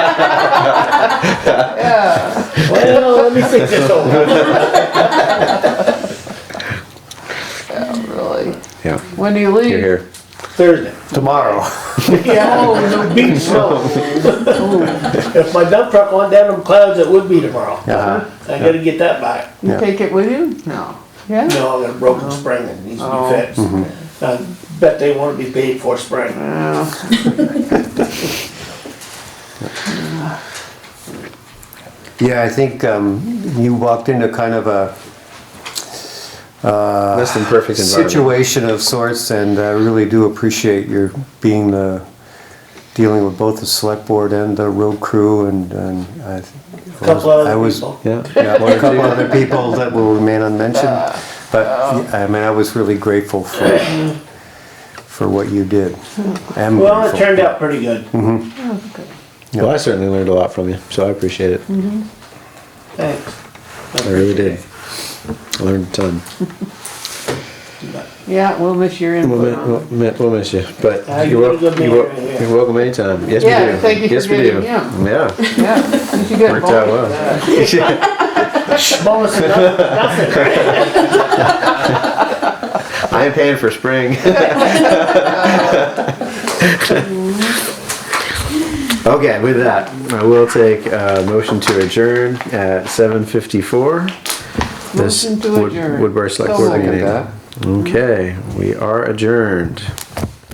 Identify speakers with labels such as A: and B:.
A: Well, let me think this over.
B: Really?
C: Yeah.
B: When do you leave?
C: You're here.
A: Thursday.
D: tomorrow.
A: Yeah, no beat snow. If my dump truck went down them clouds, it would be tomorrow.
D: Uh-huh.
A: I gotta get that back.
B: You
D: Yeah.
B: take it with you? No. Yeah?
A: No, I got a broken spring that needs
B: Oh.
A: to be
D: Mm-hmm.
A: fixed. I bet they wanna be paid for spring.
B: Well,
D: Yeah, I think um, you walked into kind of a
C: Less than perfect environment.
D: situation of sorts, and I really do appreciate your being the, dealing with both the select board and the road crew, and, and I.
A: A Couple of
D: I
A: other
D: was-
A: people.
C: Yeah.
D: Yeah, a couple other people that will remain unmentioned, but, I mean, I was really grateful for, for what you did. Am
A: Well, it
D: grateful. Mm-hmm.
A: turned out pretty good.
C: Well, I certainly learned a lot from you, so I appreciate it.
A: Thanks.
C: I really did. I learned um, a ton.
B: yeah, we'll miss your
C: We'll,
B: input
C: mi-
B: on it.
C: we'll, mi- we'll miss you, but
A: Uh,
C: you're,
A: you're
C: wel-
A: good
C: you're, wel-
A: man, yeah.
C: you're welcome anytime. Yes,
B: Yeah,
C: we do.
B: thank you for
C: yes, we do.
B: getting him.
C: Yeah,
B: Yeah, you should get
C: worked out
B: both.
C: well.
A: Bonus enough, nothing.
C: I am paying for spring. okay, with that, I will take a motion to adjourn at 7:54. This
B: Motion to
C: Wood-
B: adjourn.
C: Woodbury Select
B: So
C: Board
B: moved.
C: meeting.
D: Second that.
C: Okay, we are adjourned.